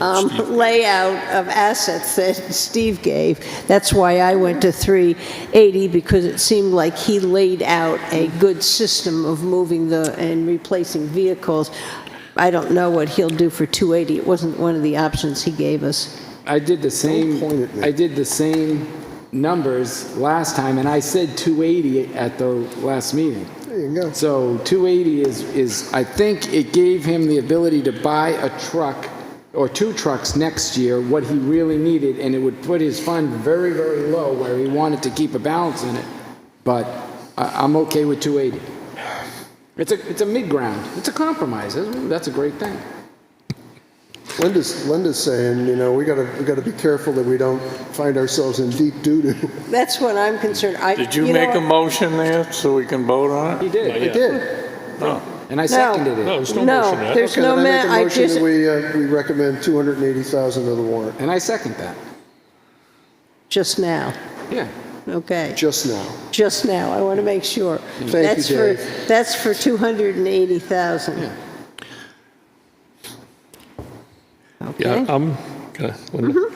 um, layout of assets that Steve gave. That's why I went to 380, because it seemed like he laid out a good system of moving the, and replacing vehicles. I don't know what he'll do for 280. It wasn't one of the options he gave us. I did the same, I did the same numbers last time, and I said 280 at the last meeting. There you go. So 280 is, is, I think it gave him the ability to buy a truck or two trucks next year, what he really needed, and it would put his fund very, very low where he wanted to keep a balance in it. But I, I'm okay with 280. It's a, it's a mid-ground. It's a compromise. That's- That's a great thing. Linda's, Linda's saying, you know, we gotta, we gotta be careful that we don't find ourselves in deep doo-doo. That's what I'm concerned. I- Did you know make a what? motion there so we can vote on He it? did, I did. and I seconded No, it. there's no No, motion yet. there's Okay, no, then ma- I I make a motion just, that we, uh, we recommend 280,000 of the warrant, And I second that. just now. Yeah. Okay, just now. just now. I want to make sure. you, That's for Dave. That's for 280,000. Yeah. Yeah, Okay. I'm, okay, Linda.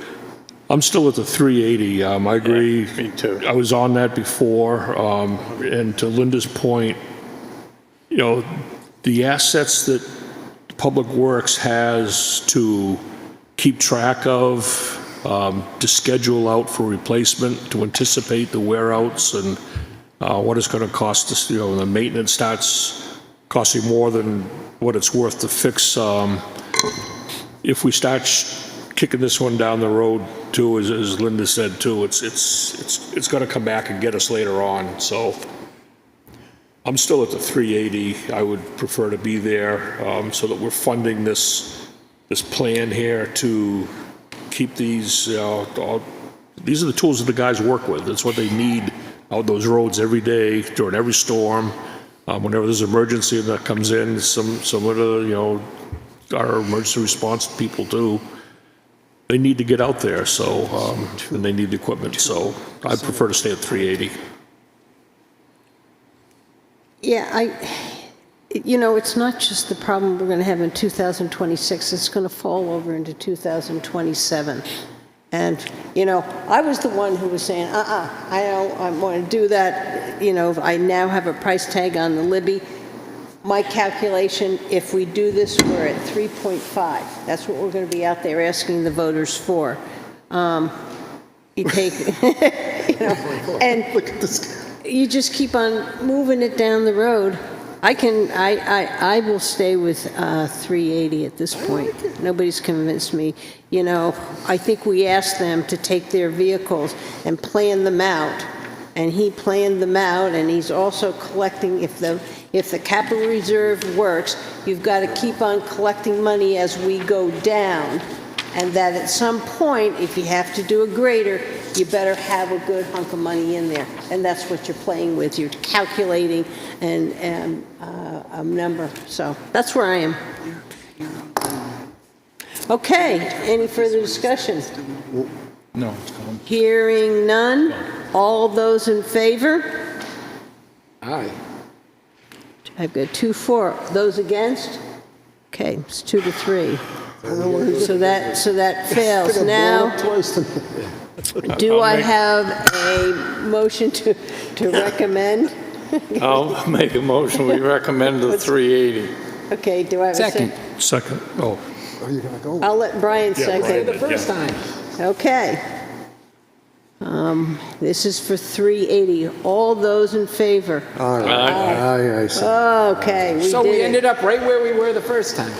I'm still at the 380. Um, I agree. me too. I was on that before, um, and to Linda's point, you know, the assets that Public Works has to keep track of, um, to schedule out for replacement, to anticipate the wear outs and uh, what it's going to cost us, you know, the maintenance starts costing more than what it's worth to fix, um, if we start sh- kicking this one down the road too, as, as Linda said too, it's, it's, it's, it's gonna come back and get us later on, so. I'm still at the 380, I would prefer to be there, um, so that we're funding this, this plan here to keep these, uh, all, these are the tools that the guys work with, that's what they need out those roads every day during every storm. Um, whenever there's an emergency that comes in, some, some of the, you know, our emergency response people do, they need to get out there, so, um, and they need the equipment, so I prefer to stay at 380. Yeah, I, you know, it's not just the problem we're going to have in 2026, it's going to fall over into 2027. And, you know, I was the one who was saying, uh-uh, I don't, I want to do that, you know, I now have a price tag on the Libby. My calculation, if we do this, we're at 3.5. That's what we're going to be out there asking the voters for. Um, You take, you know, and Look at this, you just keep on moving it down the road. I can, I, I, I will stay with uh, 380 at this point. Nobody's convinced me. You know, I think we asked them to take their vehicles and plan them out, and he planned them out, and he's also collecting, if the, if the capital reserve works, you've got to keep on collecting money as we go down, and that at some point, if you have to do a grader, you better have a good hunk of money in there. And that's what you're playing with, you're calculating and, and uh, a number, so that's where I am. Okay, any further discussion? No. Hearing none, all those in favor? Aye. I've got two, four, those against? Okay, it's two to three. So that, so that I fails. think Now, I've blown up twice tonight. Do I make- have a motion to, to recommend? I'll make a motion, we recommend the 380. Okay, do I have a second? Second. Second, oh, Are you gonna go? I'll let Brian second. The first time. Okay. Um, This is for 380. All those in favor? All right. Aye, aye, so- Okay, we So we did it. ended up right where we were the first time.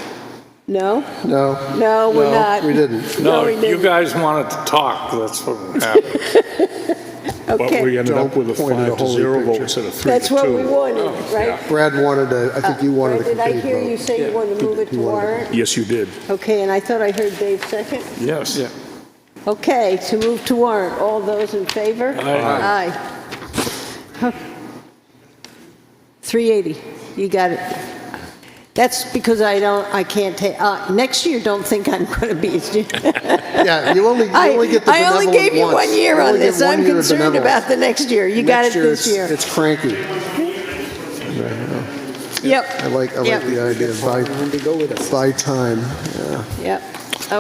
No? No, No, we're No, not. we didn't. No, No, we you didn't. guys wanted to talk, that's what happened. but we Okay, ended up with a Don't point at a five to holy zero vote picture. instead of three to two. that's what we wanted, right? Brad wanted to, I think you wanted to Uh, Did I complete hear you vote. say you wanted to move it to You wanted to- warrant? Yes, you did. Okay, and I thought I heard Dave second. Yes. Okay, to move to warrant, all those in favor? Aye. Aye. 380, you got it. That's because I don't, I can't take, uh, next year, don't think I'm going to be, Yeah, you only, you I, only get the I only benevolent gave you once. one year You on only get this, one I'm year of concerned benevolent. about the next year, you got it Next year, this it's- year. It's cranky. Yep. I like, I like Yep. the idea of buy, Time to go with us. buy time. Yep.